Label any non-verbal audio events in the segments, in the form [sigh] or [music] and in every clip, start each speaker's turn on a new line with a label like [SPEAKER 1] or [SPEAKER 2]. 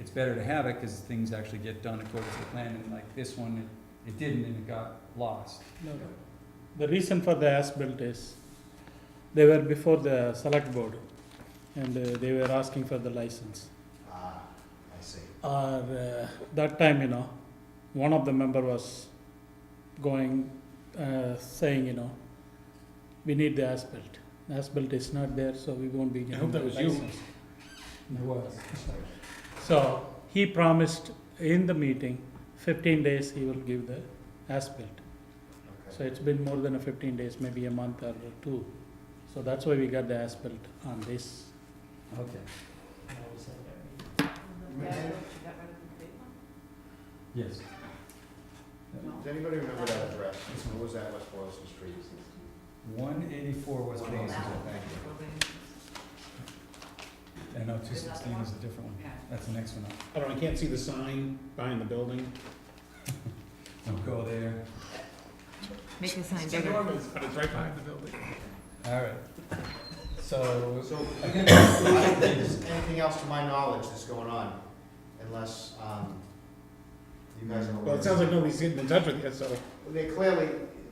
[SPEAKER 1] it's better to have it, cause things actually get done according to the plan, and like this one, it, it didn't, and it got lost.
[SPEAKER 2] No, the reason for the as-built is, they were before the select board, and uh, they were asking for the license.
[SPEAKER 3] Ah, I see.
[SPEAKER 2] Or, uh, that time, you know, one of the member was going, uh, saying, you know, we need the as-built. The As-built is not there, so we won't be
[SPEAKER 4] I
[SPEAKER 2] getting
[SPEAKER 4] hope
[SPEAKER 2] the
[SPEAKER 4] that was you.
[SPEAKER 2] license.
[SPEAKER 1] It was.
[SPEAKER 2] So, he promised in the meeting, fifteen days he will give the as-built. So
[SPEAKER 3] Okay.
[SPEAKER 2] it's been more than a fifteen days, maybe a month or two. So that's why we got the as-built on this.
[SPEAKER 1] Okay, yes.
[SPEAKER 3] Does anybody remember that address? What was that, West Boylston Street?
[SPEAKER 1] One eighty-four West
[SPEAKER 3] One oh
[SPEAKER 1] Basin,
[SPEAKER 3] nine.
[SPEAKER 1] thank you. And no, two sixteen is a different one. That's the next one up.
[SPEAKER 4] I don't, I can't see the sign behind the building.
[SPEAKER 1] Don't go there.
[SPEAKER 5] Make the sign
[SPEAKER 4] It's
[SPEAKER 5] bigger.
[SPEAKER 4] enormous, But it's right behind the building.
[SPEAKER 1] All right. So,
[SPEAKER 3] So,
[SPEAKER 1] again,
[SPEAKER 3] I don't think there's anything else to my knowledge that's going on, unless, um, you guys are aware.
[SPEAKER 4] Well, it sounds like nobody's getting in touch with you, so,
[SPEAKER 3] They clearly,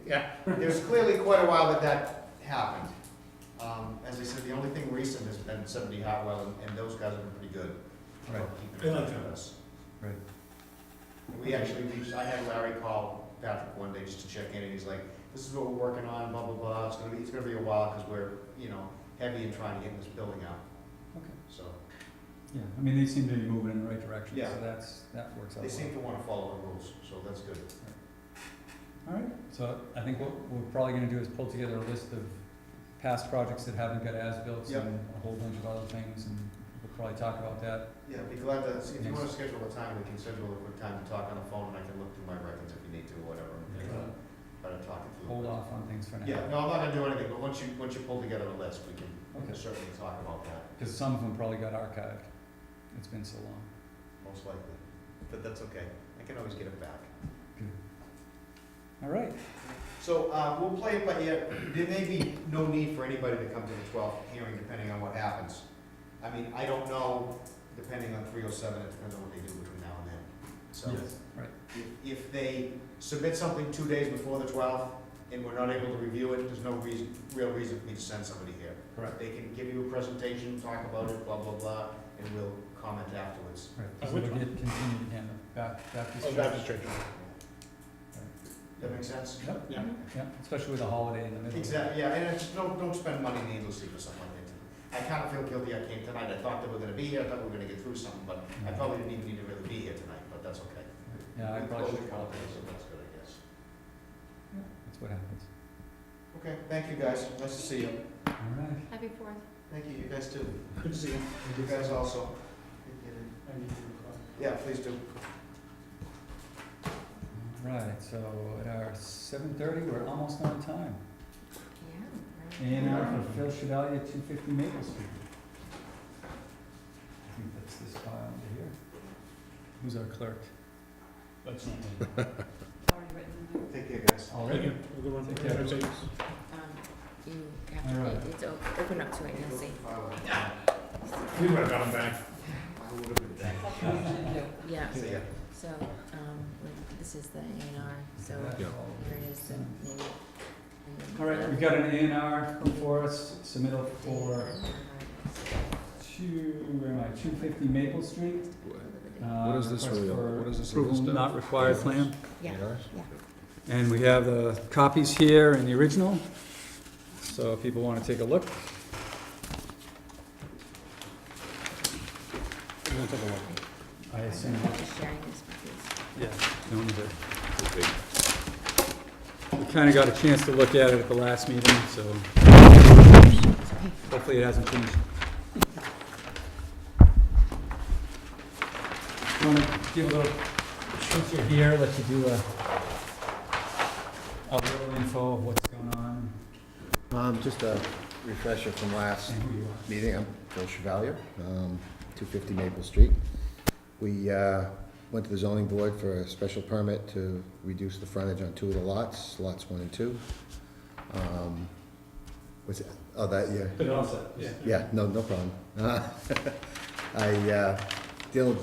[SPEAKER 4] yeah.
[SPEAKER 3] there's clearly quite a while that that happened. Um, as I said, the only thing recent has been seventy Hartwell, and- and those guys have been pretty good. about
[SPEAKER 1] Right.
[SPEAKER 3] keeping in
[SPEAKER 4] They like
[SPEAKER 3] touch with
[SPEAKER 4] that.
[SPEAKER 3] us.
[SPEAKER 1] Right.
[SPEAKER 3] And We actually reached, I had Larry call Patrick one day just to check in, and he's like, this is what we're working on, blah, blah, blah, it's gonna be, it's gonna be a while, because we're, you know, heavy in trying to get this building out.
[SPEAKER 1] Okay.
[SPEAKER 3] So,
[SPEAKER 1] yeah, I mean, they seem to be moving in the right direction,
[SPEAKER 3] Yeah.
[SPEAKER 1] so that's, that works out.
[SPEAKER 3] they
[SPEAKER 1] well.
[SPEAKER 3] seem to wanna follow the rules, so that's good.
[SPEAKER 1] All right, so I think what we're probably gonna do is pull together a list of past projects that haven't got as-built
[SPEAKER 3] Yep.
[SPEAKER 1] and a whole bunch of other things, and we'll probably talk about that.
[SPEAKER 3] Yeah, be glad to, see if you wanna schedule a time, we can schedule a quick time to talk on the phone, and I can look through my records if you need to, or whatever.
[SPEAKER 1] Yeah.
[SPEAKER 3] Better talk it through.
[SPEAKER 1] Hold off on things for now.
[SPEAKER 3] Yeah, no, I'm not gonna do anything, but once you, once you pull together a list, we can
[SPEAKER 1] Okay,
[SPEAKER 3] certainly talk about that.
[SPEAKER 1] cause some of them probably got archived. It's been so long.
[SPEAKER 3] Most likely, but that's okay, I can always get it back.
[SPEAKER 1] All right,
[SPEAKER 3] So, uh, we'll play it by ear, there may be no need for anybody to come to the twelfth hearing, depending on what happens. I mean, I don't know, depending on three oh seven, it depends on what they do between now and then. So,
[SPEAKER 1] yes, right,
[SPEAKER 3] if, if they submit something two days before the twelfth, and we're not able to review it, there's no reason, real reason for me to send somebody here.
[SPEAKER 1] correct,
[SPEAKER 3] They can give you a presentation, talk about it, blah, blah, blah, and we'll comment afterwards.
[SPEAKER 1] right. 'Cause
[SPEAKER 4] Uh, which
[SPEAKER 1] it'll
[SPEAKER 4] one?
[SPEAKER 1] get continued again, the Bac- Baptist
[SPEAKER 4] Oh,
[SPEAKER 1] Church.
[SPEAKER 4] Baptist Church.
[SPEAKER 3] That make sense?
[SPEAKER 1] Yep,
[SPEAKER 4] Yeah.
[SPEAKER 1] yep, especially with a holiday in the middle.
[SPEAKER 3] Exactly, yeah, and it's, don't, don't spend money needlessly for something like that. I kinda feel guilty I came tonight, I thought they were gonna be here, I thought we were gonna get through something, but I probably didn't even need to really be here tonight, but that's okay.
[SPEAKER 1] Yeah, I
[SPEAKER 3] We
[SPEAKER 1] probably
[SPEAKER 3] closed
[SPEAKER 1] should
[SPEAKER 3] the
[SPEAKER 1] call
[SPEAKER 3] conference, so That's good, I guess.
[SPEAKER 1] That's what happens.
[SPEAKER 3] Okay, thank you guys, nice to see you.
[SPEAKER 1] All right.
[SPEAKER 5] Happy Fourth.
[SPEAKER 3] Thank you, you guys too.
[SPEAKER 4] Good to see you.
[SPEAKER 3] You guys also. Yeah, please do.
[SPEAKER 1] Right, so at our seven thirty, we're almost on time.
[SPEAKER 5] Yeah.
[SPEAKER 1] A and uh, R for Phil Chevalier, two fifty Maple Street. I think that's this file under here. Who's our clerk?
[SPEAKER 4] That's not me.
[SPEAKER 5] Already written
[SPEAKER 3] Take care, guys.
[SPEAKER 4] Thank you.
[SPEAKER 1] Already?
[SPEAKER 4] Have a good one.
[SPEAKER 1] Take care.
[SPEAKER 4] Thanks.
[SPEAKER 5] there. Um, You
[SPEAKER 1] All
[SPEAKER 5] have
[SPEAKER 1] right.
[SPEAKER 5] to, it's o- open up to it, you'll see.
[SPEAKER 4] We would have got him back.
[SPEAKER 3] I would have been back.
[SPEAKER 5] Yeah,
[SPEAKER 3] See ya.
[SPEAKER 5] so, um, like, this is the A and R, so
[SPEAKER 1] That's
[SPEAKER 4] Yeah.
[SPEAKER 1] all.
[SPEAKER 5] here it is, the name.
[SPEAKER 1] All right, we've got an A and R for us, submittal for two, where am I, two fifty Maple Street. What
[SPEAKER 5] is
[SPEAKER 1] this
[SPEAKER 4] really all-
[SPEAKER 1] What is
[SPEAKER 4] this
[SPEAKER 1] Approval
[SPEAKER 4] stuff?
[SPEAKER 1] not required plan.
[SPEAKER 5] Yeah,
[SPEAKER 1] And we have the copies here and the original, so if people wanna take a look.
[SPEAKER 4] I'm gonna take a look.
[SPEAKER 1] I
[SPEAKER 5] I'm
[SPEAKER 1] assume,
[SPEAKER 5] just sharing this with
[SPEAKER 1] yeah, no need to. We kinda got a chance to look at it at the last meeting, so hopefully it hasn't changed. Wanna give a little, since you're here, let you do a, a little info of what's going on
[SPEAKER 6] Um, just a refresher from last
[SPEAKER 1] and who you are.
[SPEAKER 6] meeting, I'm Phil Chevalier, um, two fifty Maple Street. We, uh, went to the zoning board for a special permit to reduce the frontage on two of the lots, lots one and two. Um, was it, oh, that, yeah,
[SPEAKER 4] But also, yeah.
[SPEAKER 3] [laughs]
[SPEAKER 6] yeah, no, no problem. I, uh, dealing